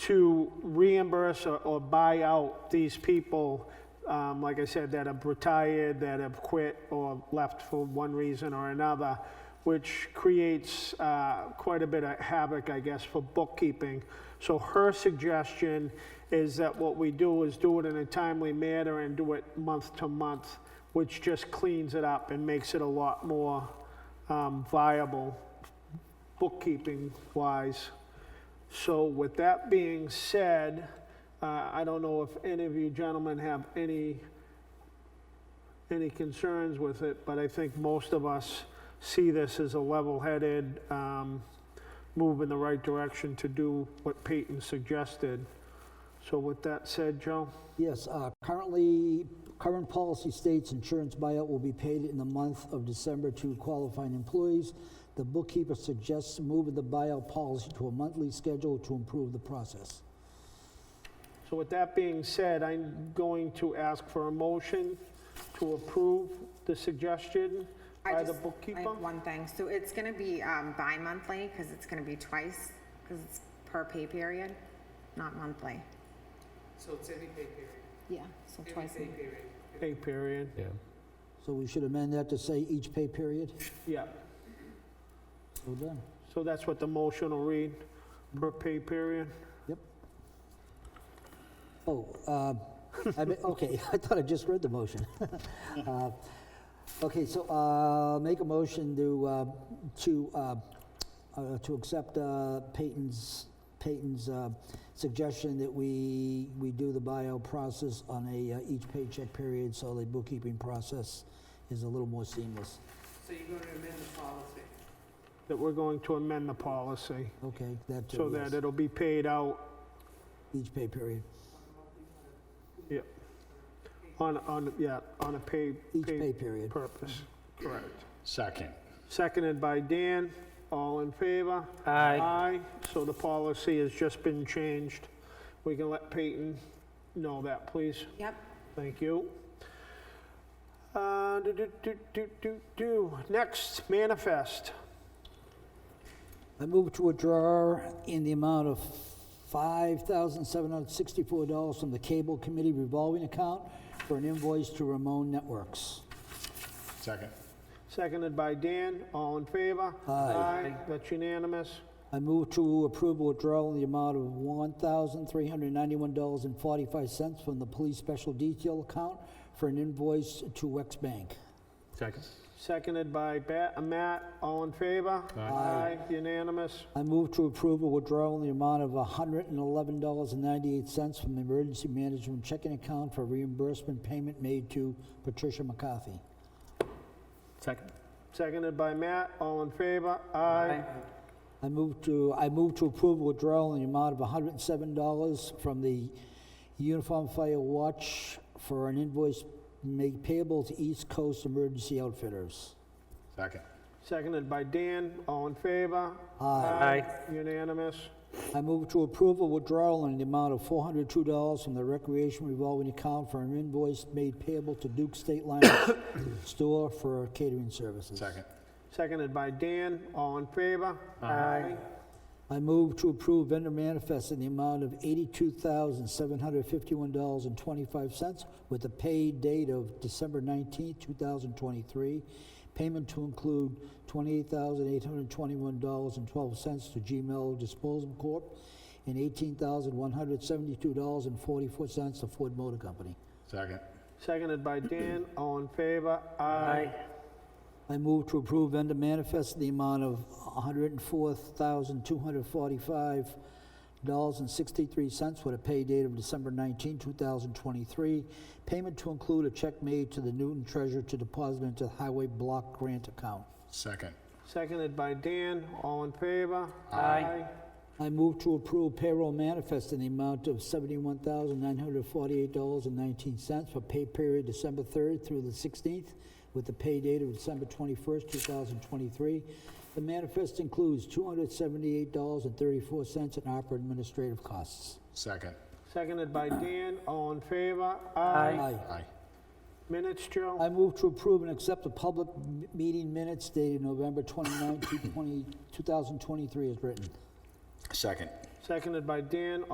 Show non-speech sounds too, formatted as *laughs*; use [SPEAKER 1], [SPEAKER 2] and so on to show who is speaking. [SPEAKER 1] to reimburse or, or buy out these people, um, like I said, that have retired, that have quit or left for one reason or another, which creates uh, quite a bit of havoc, I guess, for bookkeeping. So her suggestion is that what we do is do it in a timely manner and do it month to month, which just cleans it up and makes it a lot more um, viable bookkeeping-wise. So with that being said, uh, I don't know if any of you gentlemen have any, any concerns with it, but I think most of us see this as a level-headed um, move in the right direction to do what Peyton suggested. So with that said, Joe?
[SPEAKER 2] Yes, uh, currently, current policy states insurance buyout will be paid in the month of December to qualifying employees. The bookkeeper suggests moving the buyout policy to a monthly schedule to improve the process.
[SPEAKER 1] So with that being said, I'm going to ask for a motion to approve the suggestion
[SPEAKER 3] I
[SPEAKER 1] by the
[SPEAKER 3] just- I
[SPEAKER 1] bookkeeper.
[SPEAKER 3] have one thing, so it's gonna be um, bi-monthly, because it's gonna be twice, because it's per pay period, not monthly.
[SPEAKER 4] So it's every pay period,
[SPEAKER 3] Yeah, so
[SPEAKER 4] every
[SPEAKER 3] twice.
[SPEAKER 4] pay period.
[SPEAKER 1] Pay period,
[SPEAKER 5] Yeah,
[SPEAKER 2] So we should amend that to say each pay period.
[SPEAKER 1] yeah.
[SPEAKER 2] We're done.
[SPEAKER 1] So that's what the motion will read, per pay period?
[SPEAKER 2] Oh, uh, I mean, okay, *laughs* I thought I just read the motion. *laughs* Uh, Okay, so uh, make a motion to, uh, to, uh, uh, to accept uh, Peyton's, Peyton's uh, suggestion that we, we do the buyout process on a, uh, each paycheck period, so the bookkeeping process is a little more seamless.
[SPEAKER 4] So you're going to amend the policy.
[SPEAKER 1] That we're going to amend the policy
[SPEAKER 2] Okay, that
[SPEAKER 1] so
[SPEAKER 2] too,
[SPEAKER 1] that
[SPEAKER 2] yes,
[SPEAKER 1] it'll be paid out
[SPEAKER 2] each pay period,
[SPEAKER 1] on, on, yeah, on a pay,
[SPEAKER 2] each pay
[SPEAKER 1] pay
[SPEAKER 2] period.
[SPEAKER 1] purpose. Correct.
[SPEAKER 6] Second.
[SPEAKER 1] Seconded by Dan, all in favor? Aye. Aye, so the policy has just been changed. We can let Peyton know that, please.
[SPEAKER 3] Yep,
[SPEAKER 1] Thank you. Uh, do, do, do, do, do, do. Next, manifest.
[SPEAKER 2] I move to withdraw in the amount of $5,764 from the Cable Committee revolving account for an invoice to Ramon Networks.
[SPEAKER 6] Second.
[SPEAKER 1] Seconded by Dan, all in favor?
[SPEAKER 2] Aye.
[SPEAKER 1] That's unanimous.
[SPEAKER 2] I move to approve a withdrawal in the amount of $1,391.45 from the Police Special Detail account for an invoice to Wex Bank.
[SPEAKER 5] second.
[SPEAKER 1] Seconded by Ba- uh, Matt, all in favor? Aye. Unanimous.
[SPEAKER 2] I move to approve a withdrawal in the amount of $111.98 from the Emergency Management Checking Account for reimbursement payment made to Patricia McCarthy.
[SPEAKER 5] Second.
[SPEAKER 1] Seconded by Matt, all in favor? Aye.
[SPEAKER 2] I move to, I move to approve withdrawal in the amount of $107 from the Uniform Fire Watch for an invoice made payable to East Coast Emergency Outfitters.
[SPEAKER 6] Second.
[SPEAKER 1] Seconded by Dan, all in favor?
[SPEAKER 2] Aye.
[SPEAKER 1] Unanimous.
[SPEAKER 2] I move to approve a withdrawal in the amount of $402 from the Recreation Revolving Account for an invoice made payable to Duke State Line *coughs* Store for catering services.
[SPEAKER 6] Second.
[SPEAKER 1] Seconded by Dan, all in favor? Aye.
[SPEAKER 2] I move to approve vendor manifest in the amount of $82,751.25 with a paid date of December 19, 2023. Payment to include $28,821.12 to Gmail Disposal Corp. and $18,172.44 to Ford Motor Company.
[SPEAKER 6] Second.
[SPEAKER 1] Seconded by Dan, all in favor? Aye.
[SPEAKER 2] I move to approve vendor manifest in the amount of $104,245.63 with a pay date of December 19, 2023. Payment to include a check made to the Newton Treasurer to deposit into the Highway Block Grant account.
[SPEAKER 6] Second.
[SPEAKER 1] Seconded by Dan, all in favor? Aye.
[SPEAKER 2] I move to approve payroll manifest in the amount of $71,948.19 for pay period December 3rd through the 16th with the pay date of December 21st, 2023. The manifest includes $278.34 in opera administrative costs.
[SPEAKER 6] Second.
[SPEAKER 1] Seconded by Dan, all in favor?
[SPEAKER 2] Aye.
[SPEAKER 6] Aye.
[SPEAKER 1] Minutes, Joe?
[SPEAKER 2] I move to approve and accept the public m- meeting minutes dated November 29, 2023 as written.
[SPEAKER 6] Second.
[SPEAKER 1] Seconded by Dan,